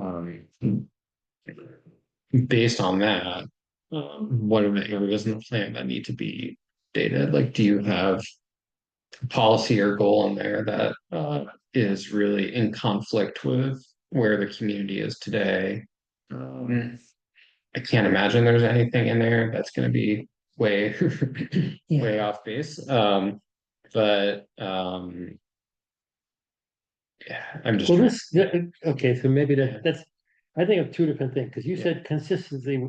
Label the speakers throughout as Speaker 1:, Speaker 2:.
Speaker 1: Um, based on that, um, what are the areas in the plan that need to be dated? Like, do you have a policy or goal in there that uh is really in conflict with where the community is today? Um, I can't imagine there's anything in there that's gonna be way, way off base, um, but, um. Yeah, I'm just.
Speaker 2: Well,
Speaker 1: trying-
Speaker 2: this, yeah, okay, so maybe
Speaker 1: Yeah.
Speaker 2: that, that's, I think of two different things, because you
Speaker 1: Yeah.
Speaker 2: said consistency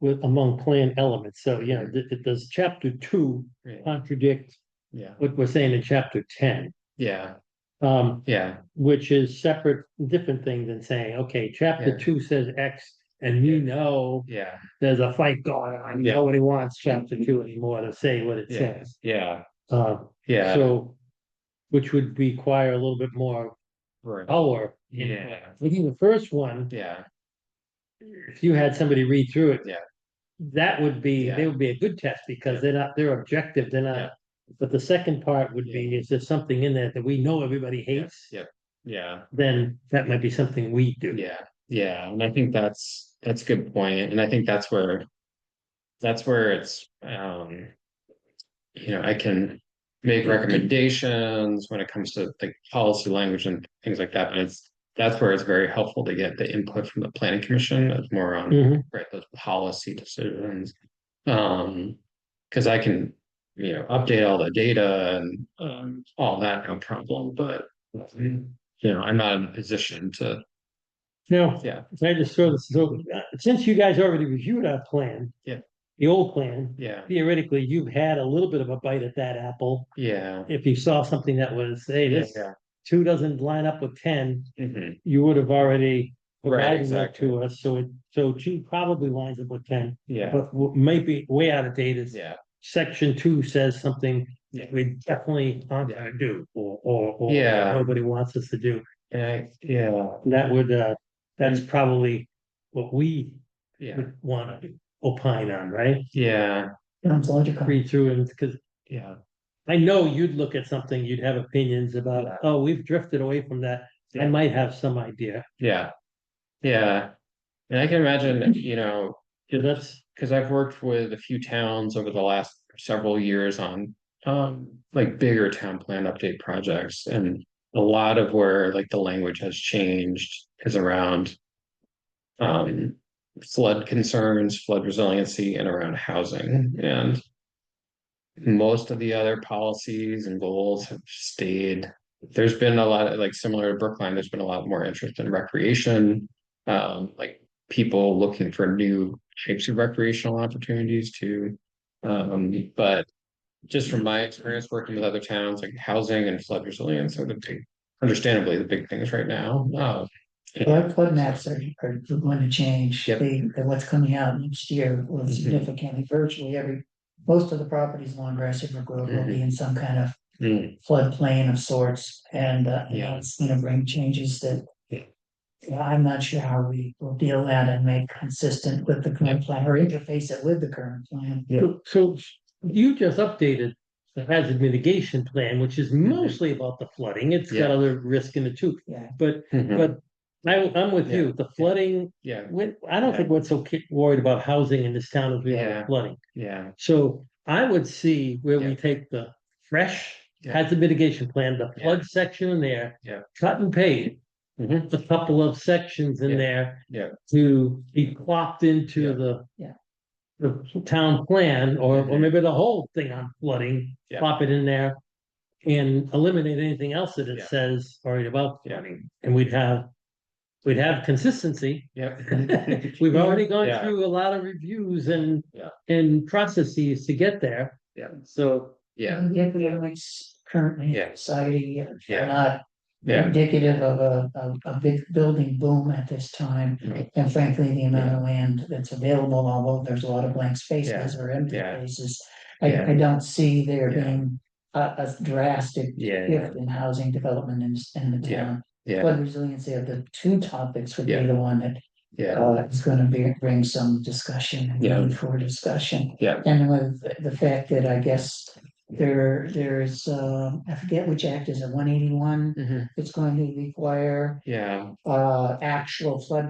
Speaker 2: with, among plan elements, so, you
Speaker 1: Mm-hmm.
Speaker 2: know, th- th- does chapter two
Speaker 1: Yeah,
Speaker 2: contradict
Speaker 1: Yeah,
Speaker 2: what we're saying in chapter ten?
Speaker 1: yeah,
Speaker 2: Um,
Speaker 1: yeah,
Speaker 2: which is separate, different thing than saying, okay,
Speaker 1: Yeah.
Speaker 2: chapter two says X, and we know
Speaker 1: yeah,
Speaker 2: there's a fight going on,
Speaker 1: Yeah. Mm-hmm.
Speaker 2: nobody wants chapter two anymore to say what it
Speaker 1: Yeah.
Speaker 2: says.
Speaker 1: yeah,
Speaker 2: Uh,
Speaker 1: yeah,
Speaker 2: so, which would require a little bit more
Speaker 1: right.
Speaker 2: power. in-
Speaker 1: yeah,
Speaker 2: I think the first one,
Speaker 1: yeah,
Speaker 2: if you had somebody read through it.
Speaker 1: Yeah.
Speaker 2: That would be,
Speaker 1: Yeah.
Speaker 2: they would be a good test because they're not, they're objective, they're
Speaker 1: Yeah.
Speaker 2: not. But the second part would be, is there something in there that we know everybody hates?
Speaker 1: yeah, yeah.
Speaker 2: Then that might be something we do.
Speaker 1: Yeah, yeah, and I think that's, that's a good point, and I think that's where. That's where it's, um. You know, I can make recommendations when it comes to like policy language and things like that, but it's. That's where it's very helpful to get the input from the planning commission, that's more on
Speaker 2: Mhm.
Speaker 1: right, those policy decisions. Um, cause I can, you know, update all the data and, um, all that, no problem, but. You know, I'm not in a position to,
Speaker 2: Now,
Speaker 1: yeah,
Speaker 2: can I just throw this, so uh, since you guys already reviewed our plan.
Speaker 1: Yeah.
Speaker 2: The old plan,
Speaker 1: yeah,
Speaker 2: theoretically, you've had a little bit of a bite at that apple.
Speaker 1: yeah.
Speaker 2: If you saw something that was, hey, this
Speaker 1: Yeah,
Speaker 2: two doesn't line up with ten,
Speaker 1: mhm,
Speaker 2: you would have already.
Speaker 1: Right,
Speaker 2: provided that
Speaker 1: exactly.
Speaker 2: To us, so it, so two probably lines up with ten.
Speaker 1: yeah,
Speaker 2: But what may be way out of date is
Speaker 1: yeah,
Speaker 2: section two says something
Speaker 1: Yeah.
Speaker 2: that we definitely aren't gonna do or, or, or
Speaker 1: Yeah.
Speaker 2: nobody wants us to do.
Speaker 1: and I, yeah,
Speaker 2: And That would, uh, that's
Speaker 1: Mm.
Speaker 2: probably what we
Speaker 1: yeah,
Speaker 2: would wanna opine on, right?
Speaker 1: yeah,
Speaker 2: Sounds logical. Read through and, cause
Speaker 1: yeah,
Speaker 2: I know you'd look at something, you'd have opinions about,
Speaker 1: Yeah.
Speaker 2: oh, we've drifted away from that. I
Speaker 1: Yeah.
Speaker 2: might have some idea.
Speaker 1: yeah. Yeah, and I can imagine, you know,
Speaker 2: Yeah, That's,
Speaker 1: because I've worked with a few towns over the last several years on um like bigger town plan update projects and a lot of where like the language has changed is around um flood concerns, flood resiliency and around housing and most of the other policies and goals have stayed. There's been a lot of like similar to Brookline, there's been a lot more interest in recreation. Um like people looking for new types of recreational opportunities too. Um, but just from my experience working with other towns, like housing and flood resilience are the big, understandably, the big things right now. Uh,
Speaker 3: Our flood maps are, are going to change.
Speaker 1: Yep.
Speaker 3: They, they- what's coming out next year will
Speaker 1: Mhm.
Speaker 3: significantly, virtually every, most of the properties along Grass River Road will
Speaker 1: Mm-hmm.
Speaker 3: be in some kind of
Speaker 1: mm,
Speaker 3: floodplain of sorts. And, uh,
Speaker 1: Yeah.
Speaker 3: it's gonna bring changes that
Speaker 1: Yeah.
Speaker 3: yeah, I'm not sure how we will deal with that and make consistent with the current plan or interface it with the current plan.
Speaker 2: so- so you just updated the hazard mitigation plan, which is
Speaker 1: Mm-hmm.
Speaker 2: mostly about the flooding. It's got other risk in it too.
Speaker 3: Yeah,
Speaker 2: But,
Speaker 1: mhm,
Speaker 2: but I, I'm with you, the flooding,
Speaker 1: yeah,
Speaker 2: we- I don't think we're so ki- worried about housing in this town as we are
Speaker 1: Yeah.
Speaker 2: with flooding.
Speaker 1: yeah,
Speaker 2: So I would see where we
Speaker 1: Yeah.
Speaker 2: take the fresh
Speaker 1: Yeah.
Speaker 2: hazard mitigation plan, the
Speaker 1: Yeah.
Speaker 2: flood section in there.
Speaker 1: Yeah.
Speaker 2: Cut and paste
Speaker 1: mhm,
Speaker 2: a couple of sections
Speaker 1: Yeah.
Speaker 2: in there.
Speaker 1: Yeah.
Speaker 2: To be plopped into
Speaker 1: Yeah.
Speaker 2: the.
Speaker 3: Yeah.
Speaker 2: The town plan, or, or
Speaker 1: Mhm.
Speaker 2: maybe the whole thing on flooding,
Speaker 1: Yeah.
Speaker 2: plop it in there. And eliminate anything else that
Speaker 1: Yeah.
Speaker 2: it says already about
Speaker 1: Yeah.
Speaker 2: flooding, and we'd have. We'd have consistency.
Speaker 1: yep.
Speaker 2: We've already gone
Speaker 1: Yeah.
Speaker 2: through a lot of reviews and.
Speaker 1: Yeah.
Speaker 2: And processes to get there.
Speaker 1: Yeah.
Speaker 2: So,
Speaker 1: Yeah,
Speaker 3: And the economics currently
Speaker 1: Yeah.
Speaker 3: society are
Speaker 1: Yeah.
Speaker 3: not
Speaker 1: yeah,
Speaker 3: indicative of a, of a big building boom at this time.
Speaker 1: mhm,
Speaker 3: And frankly, the amount of land that's available, although there's a lot of blank spaces or empty
Speaker 1: Yeah.
Speaker 3: spaces. I,
Speaker 1: Yeah.
Speaker 3: I don't see there
Speaker 1: Yeah.
Speaker 3: being a, a drastic
Speaker 1: yeah,
Speaker 3: shift in housing development in, in the
Speaker 1: Yeah.
Speaker 3: town.
Speaker 1: yeah,
Speaker 3: Flood resiliency of the two topics would be
Speaker 1: Yeah.
Speaker 3: the one that,
Speaker 1: yeah,
Speaker 3: uh, is gonna be, bring some discussion, and
Speaker 1: Yeah.
Speaker 3: need for discussion.
Speaker 1: yeah,
Speaker 3: And with the fact that I guess there, there's, uh, I forget which act is it, one eighty-one?
Speaker 1: mhm,
Speaker 3: It's going to require,
Speaker 1: yeah.
Speaker 3: uh, actual flood